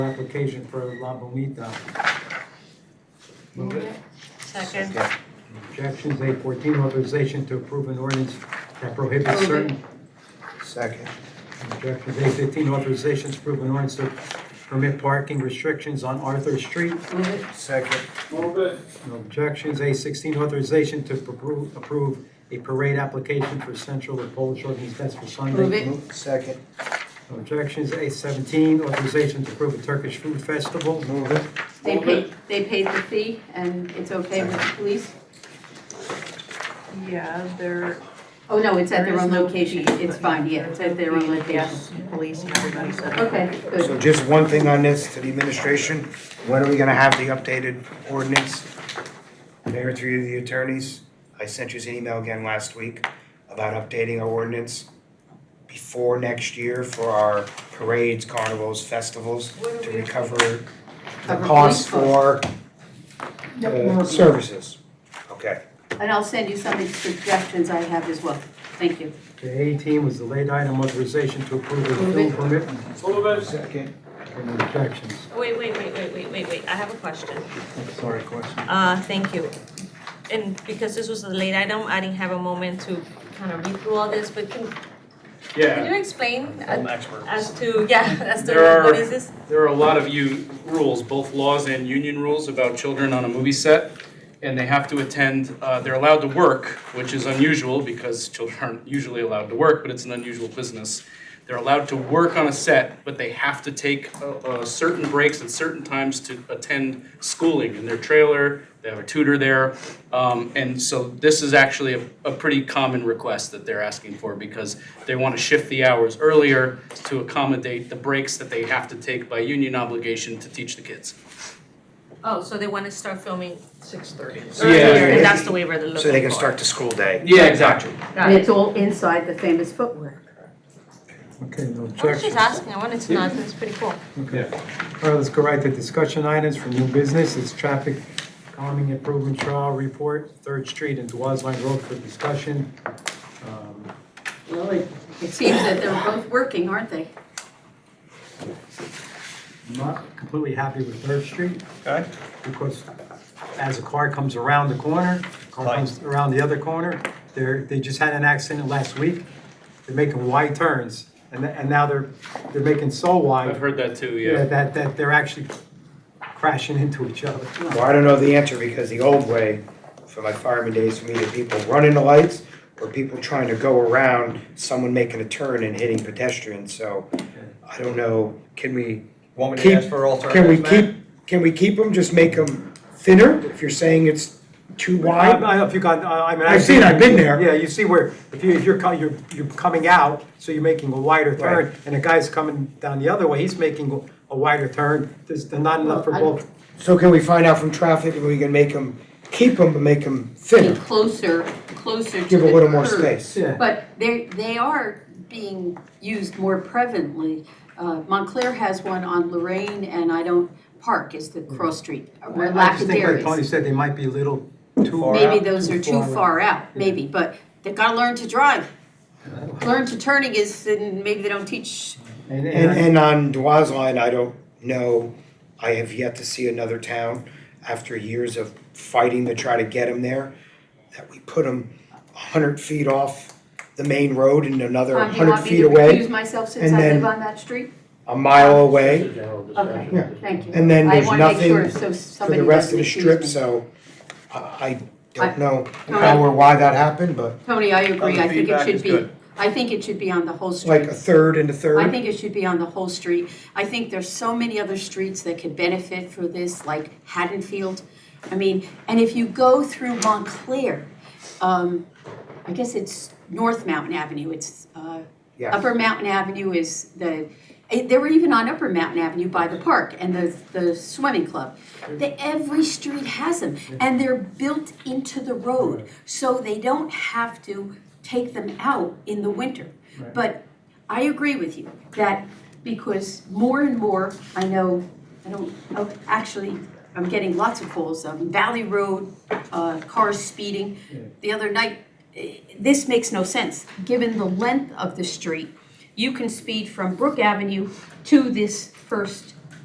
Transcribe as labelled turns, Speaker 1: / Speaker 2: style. Speaker 1: application for La Bonita.
Speaker 2: Move it.
Speaker 3: Second.
Speaker 1: Objections, A fourteen, authorization to approve an ordinance that prohibits
Speaker 2: Move it.
Speaker 1: certain.
Speaker 4: Second.
Speaker 1: Objections, A fifteen, authorization to approve an ordinance to permit parking restrictions on Arthur Street.
Speaker 2: Move it.
Speaker 4: Second.
Speaker 5: Move it,
Speaker 1: No objections, A sixteen, authorization to appro- approve a parade application for Central of Polish Ordinance Fest for Sunday.
Speaker 2: Move it.
Speaker 4: Move. Second.
Speaker 1: No objections, A seventeen, authorization to approve a Turkish food festival.
Speaker 4: Move it.
Speaker 2: They
Speaker 5: Move
Speaker 2: paid, they paid the fee and it's okay with the police?
Speaker 3: Yeah, there,
Speaker 2: Oh, no, it's
Speaker 3: There
Speaker 2: at their
Speaker 3: is
Speaker 2: own
Speaker 3: no
Speaker 2: location.
Speaker 3: fee,
Speaker 2: It's
Speaker 3: but-
Speaker 2: fine, yeah, it's at their own location.
Speaker 3: yes, police, everybody said.
Speaker 2: Okay,
Speaker 4: So
Speaker 2: good.
Speaker 4: just one thing on this to the administration. When are we gonna have the updated ordinance? Mayor, through the attorneys, I sent you an email again last week about updating our ordinance before next year for our parades, carnivals, festivals, to recover the
Speaker 2: Cover
Speaker 4: costs
Speaker 2: police
Speaker 4: for uh, services. Okay.
Speaker 2: And I'll send you some of the suggestions I have as well. Thank you.
Speaker 1: The eighteen was the late item, authorization to approve a
Speaker 2: Move
Speaker 1: film
Speaker 2: it.
Speaker 1: permit.
Speaker 5: move it,
Speaker 4: Second.
Speaker 1: No objections.
Speaker 6: Wait, wait, wait, wait, wait, wait, wait, I have a question.
Speaker 4: Sorry, question.
Speaker 6: Uh, thank you. And because this was a late item, I didn't have a moment to kind of read through all this, but can, can
Speaker 5: yeah.
Speaker 6: you explain
Speaker 5: I'm
Speaker 6: uh,
Speaker 5: expert.
Speaker 6: as to, yeah, as to,
Speaker 5: There are-
Speaker 6: what is this?
Speaker 5: There are a lot of you rules, both laws and union rules about children on a movie set. And they have to attend, uh, they're allowed to work, which is unusual because children aren't usually allowed to work, but it's an unusual business. They're allowed to work on a set, but they have to take, uh, uh, certain breaks at certain times to attend schooling in their trailer. They have a tutor there. Um, and so this is actually a, a pretty common request that they're asking for because they want to shift the hours earlier to accommodate the breaks that they have to take by union obligation to teach the kids.
Speaker 6: Oh, so they want to start filming six thirty.
Speaker 4: So, yeah,
Speaker 6: Earlier,
Speaker 4: yeah.
Speaker 6: and that's the waiver they're looking for.
Speaker 4: So they can start the school day.
Speaker 5: Yeah, exactly.
Speaker 6: Got
Speaker 2: And
Speaker 6: it.
Speaker 2: it's all inside the famous footwear.
Speaker 1: Okay, no
Speaker 6: I was just
Speaker 1: objections.
Speaker 6: asking, I wanted to know, I think it's pretty cool.
Speaker 1: Okay. All right, let's go right to discussion items for new business. It's traffic calming improvement trial report, Third Street and Dwaz Line Road for discussion. Um,
Speaker 2: Well, it it seems that they're both working, aren't they?
Speaker 1: I'm Not completely happy with Third Street
Speaker 7: Okay,
Speaker 1: because as a car comes around the corner, car comes around the other corner, they're, they just had an accident last week. They're making wide turns and, th- and now they're, they're making so
Speaker 5: I've
Speaker 1: wide
Speaker 5: heard that too, yeah.
Speaker 1: that, that they're actually crashing into each other.
Speaker 4: Well, I don't know the answer because the old way, for my fireman days, for me, the people running the lights or people trying to go around, someone making a turn and hitting pedestrians, so I don't know, can we,
Speaker 7: want me
Speaker 4: Keep-
Speaker 7: to ask for
Speaker 4: can we
Speaker 7: alternatives,
Speaker 4: keep,
Speaker 7: Matt?
Speaker 4: can we keep them, just make them thinner? If you're saying it's too
Speaker 1: I, I
Speaker 4: wide,
Speaker 1: don't know if you got, I I mean. I
Speaker 4: I've
Speaker 1: see-
Speaker 4: seen it, I've been there.
Speaker 1: Yeah, you see where, if you, if you're, co- you're, you're coming out, so you're making a wider turn,
Speaker 4: Right.
Speaker 1: and the guy's coming down the other way, he's making a wider turn, there's not enough for
Speaker 2: Well, I-
Speaker 1: both.
Speaker 4: so can we find out from traffic if we can make them, keep them, but make them
Speaker 2: Be
Speaker 4: thinner?
Speaker 2: closer, closer to the curb.
Speaker 4: Give a little more space.
Speaker 1: Yeah.
Speaker 2: But they, they are being used more prevalently. Uh, Montclair has one on Lorraine and I don't, Park is the cross street,
Speaker 1: I-
Speaker 2: where
Speaker 1: I just think like
Speaker 2: Lackadaris.
Speaker 1: Tony said, they might be a little too.
Speaker 7: Far
Speaker 2: Maybe
Speaker 7: out.
Speaker 2: those
Speaker 1: Too
Speaker 2: are too
Speaker 1: far
Speaker 2: far out, maybe, but they've got to learn to drive. Learn to turning is, and maybe they don't teach,
Speaker 1: And,
Speaker 4: And,
Speaker 1: and,
Speaker 4: and on Dwa's line, I don't know, I have yet to see another town, after years of fighting to try to get them there, that we put them a hundred feet off the main road and another
Speaker 2: Tom, do you
Speaker 4: hundred
Speaker 2: want me
Speaker 4: feet
Speaker 2: to recuse
Speaker 4: away,
Speaker 2: myself since
Speaker 4: and
Speaker 2: I live
Speaker 4: then-
Speaker 2: on that street?
Speaker 4: a mile away, Yeah.
Speaker 2: Okay, thank you.
Speaker 4: and then
Speaker 2: I
Speaker 4: there's
Speaker 2: want to make sure
Speaker 4: nothing
Speaker 2: so
Speaker 4: for
Speaker 2: somebody
Speaker 4: the rest of
Speaker 2: doesn't
Speaker 4: the strip,
Speaker 2: accuse me.
Speaker 4: so I, I
Speaker 2: I-
Speaker 4: don't know
Speaker 2: Alright.
Speaker 4: how or why that happened, but
Speaker 2: Tony, I agree,
Speaker 7: Other
Speaker 2: I think it
Speaker 7: feedback
Speaker 2: should
Speaker 7: is
Speaker 2: be,
Speaker 7: good.
Speaker 2: I think it should be on the whole
Speaker 4: it's like
Speaker 2: street.
Speaker 4: a third and a
Speaker 2: I
Speaker 4: third.
Speaker 2: think it should be on the whole street. I think there's so many other streets that could benefit for this, like Haddonfield. I mean, and if you go through Montclair, um, I guess it's North Mountain Avenue, it's, uh,
Speaker 4: Yeah.
Speaker 2: Upper Mountain Avenue is the, eh, they were even on Upper Mountain Avenue by the park and the, the swimming club. They, every street has them, and they're built into the road, so they don't have to take them out in the winter. But I agree with you, that because more and more, I know, I don't, oh, actually, I'm getting lots of calls, um, Valley Road, uh, cars speeding. The other night, eh, this makes no sense, given the length of the street, you can speed from Brook Avenue to this first